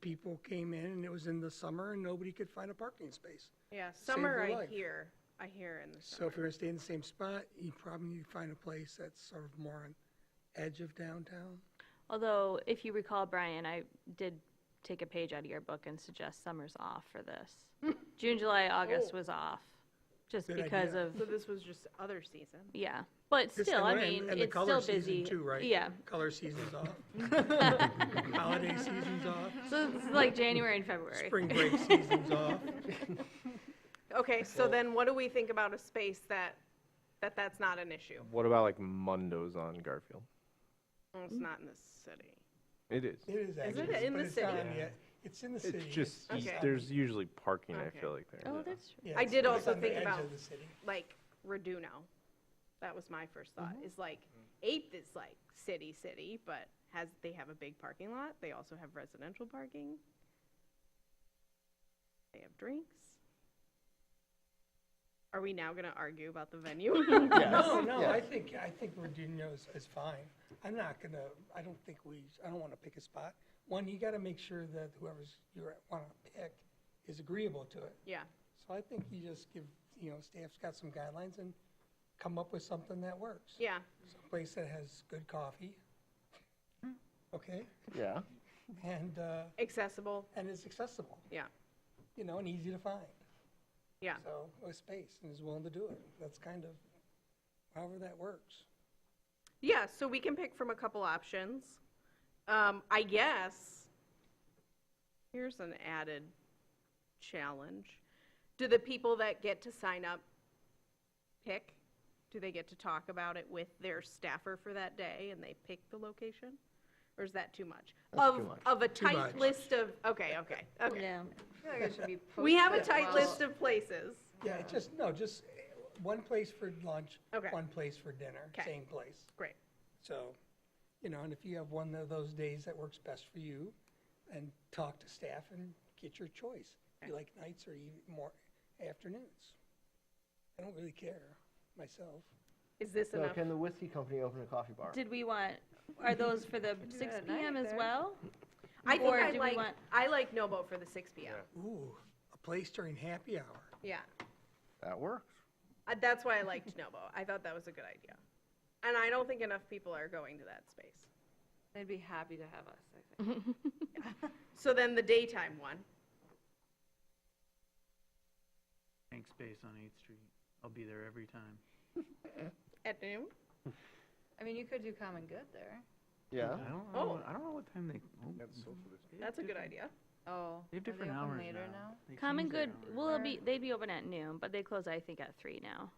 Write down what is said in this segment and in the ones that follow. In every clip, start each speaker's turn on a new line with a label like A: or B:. A: people came in and it was in the summer and nobody could find a parking space.
B: Yeah, summer
A: your
B: I
A: life.
B: hear, I hear in the
A: So
B: summer.
A: if you're gonna stay in the same spot, you probably need to find a place that's sort of more on edge of downtown.
C: Although, if you recall, Brian, I did take a page out of your book and suggest summer's off for this. June, July, August was off, just
A: Oh. Good
C: because
A: idea.
C: of,
B: So this was just other season.
C: yeah. But
A: This-
C: still, I
A: and-
C: mean,
A: and the
C: it's
A: color
C: still
A: season
C: busy.
A: Too, right?
C: Yeah.
A: Color season's off. Holiday season's off,
C: So it's like January and February.
A: spring break season's off.
B: Okay, so then what do we think about a space that, that that's not an issue?
D: What about like Mundo's on Garfield?
A: Mm-hmm.
B: Well, It's not in the city.
D: It is.
A: It is actually,
B: in
A: but
B: the
A: it's not
B: city?
A: on yet. It's in the city.
D: It's just
B: Okay.
D: e- there's usually parking.
B: Okay.
D: I feel like there.
C: Oh, that's true.
A: yeah,
B: I
A: it's-
B: did
A: it's
B: also
A: on the
B: think
A: edge
B: about-
A: of the city.
B: Like Reduno. That was my first thought,
A: Mm-hmm.
B: is like, Eighth is like city, city, but has, they have a big parking lot. They also have residential parking. They have drinks. Are we now gonna argue about the venue?
A: No, no, I think, I think Virginia is, is fine. I'm not gonna, I don't think we, I don't wanna pick a spot. One, you gotta make sure that whoever's you wanna pick is agreeable to it.
B: Yeah.
A: So I think you just give, you know, staff's got some guidelines and come up with something that works.
B: Yeah,
A: A Place that has good coffee,
B: Mm-hmm.
A: okay,
D: Yeah.
A: and, uh,
B: accessible,
A: and is accessible,
B: yeah,
A: you know, and easy to find.
B: yeah.
A: So, with space, and is willing to do it. That's kind of, however that works.
B: Yeah, so we can pick from a couple options. Um, I guess, here's an added challenge. Do the people that get to sign up pick? Do they get to talk about it with their staffer for that day and they pick the location? Or is that too much? Of, of a tight
A: much.
B: list of, okay, okay, okay.
E: Yeah. I feel like it should be
B: We have a
E: posted
B: tight
E: well.
B: list of places.
A: Yeah, it's just, no, just eh, one place for lunch,
B: Okay.
A: one place for dinner,
B: Okay.
A: same place.
B: Great.
A: So, you know, and if you have one of those days that works best for you, and talk to staff and get your choice. If you like nights or even more afternoons. I don't really care myself.
B: Is this
F: So
B: enough?
F: can the whiskey company open a coffee bar?
C: Did we want, are those for the six
E: at night
C: PM as
E: then.
C: well?
B: I think
C: or
B: I
C: do we
B: like,
C: want-
B: I like Nobo for the six P M.
A: Ooh, a place during happy hour.
B: Yeah.
D: That works.
B: Uh, That's why I liked Nobo. I thought that was a good idea. And I don't think enough people are going to that space.
E: They'd be happy to have us, I think.
B: So then the daytime one.
G: Tank space on 8th Street. I'll be there every time.
B: At noon?
E: I mean, you could do common good there.
F: Yeah.
G: I don't
B: Oh.
G: know, I don't know what time they. Oh, they have
B: That's a good
G: different-
B: idea.
E: Oh.
G: They
E: are
G: have different
E: open
G: hours
E: later
G: They
C: Common
G: change their
C: good,
G: hours.
C: well, it'll be, they'd be open at noon, but they close, I think, at three now.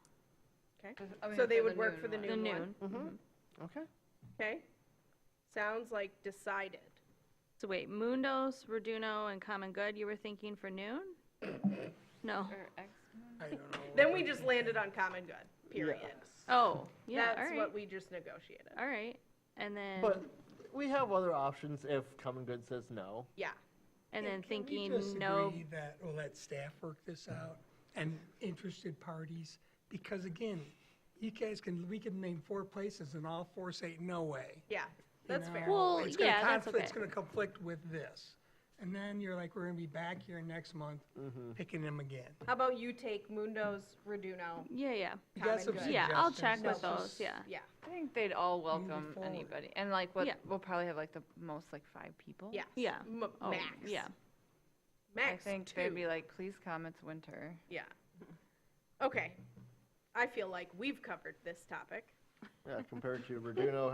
B: Okay.
E: I mean,
B: So
E: for
B: they
E: the
B: would work for the
E: noon
C: The
B: noon one.
C: noon.
F: Mm-hmm.
D: Mm-hmm.
F: Okay.
B: Okay. Sounds like decided.
C: So wait, Mundos, Reduno, and Common Good, you were thinking for noon? No.
E: Or X.
A: I don't know.
B: Then we just landed on common good, period.
C: Oh, yeah, all
B: That's
C: right.
B: what we just negotiated.
C: All right. And then,
F: But we have other options if Common Good says no.
B: Yeah.
C: and
A: Can
C: then
A: we
C: thinking,
A: just
C: no,
A: agree That, we'll let staff work this out and interested parties, because again, you guys can, we can name four places and all four say, no way.
B: Yeah.
A: you
B: That's fair.
A: know?
C: Well,
A: It's gonna
C: yeah, that's
A: conflict- It's
C: okay.
A: gonna conflict with this. And then you're like, we're gonna be back here next month
D: Mm-hmm.
A: picking them again.
B: How about you take Mundo's Reduno?
C: yeah, yeah.
A: You got
B: Common
A: some
B: good.
C: Yeah, I'll
A: suggestions.
C: check with
A: Let's
C: those,
A: just-
C: yeah.
B: Yeah.
E: I think they'd all welcome
A: forward.
E: anybody. And like, what,
C: Yeah.
E: we'll probably have like the most, like five people.
B: Yes.
C: Yeah.
B: M-
C: Oh,
B: Max.
C: Yeah.
B: Max.
E: I think
B: two.
E: they'd be like, please come, it's winter.
B: Yeah. Okay. I feel like we've covered this topic.
F: Yeah, compared to Reduno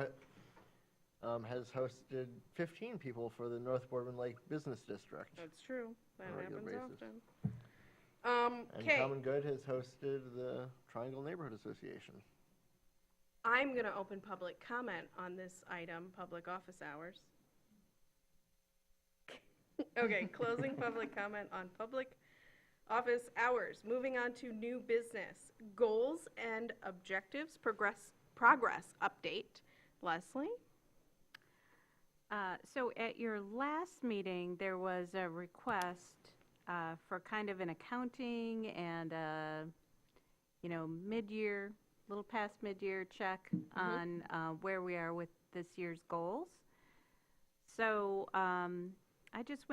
F: ha- um, has hosted 15 people for the North Bourbon Lake Business District.
B: That's true. That
F: On a regular
B: happens
F: basis.
B: often. Um,
F: And
B: okay,
F: Common Good has hosted the Triangle Neighborhood Association.
B: I'm gonna open public comment on this item, public office hours. Okay, closing public comment on public office hours. Moving on to new business, goals and objectives, progress, progress update. Leslie?
H: Uh, So at your last meeting, there was a request uh, for kind of an accounting and a, you know, mid-year, little past mid-year check on uh, where we are with this year's goals. So um, I just went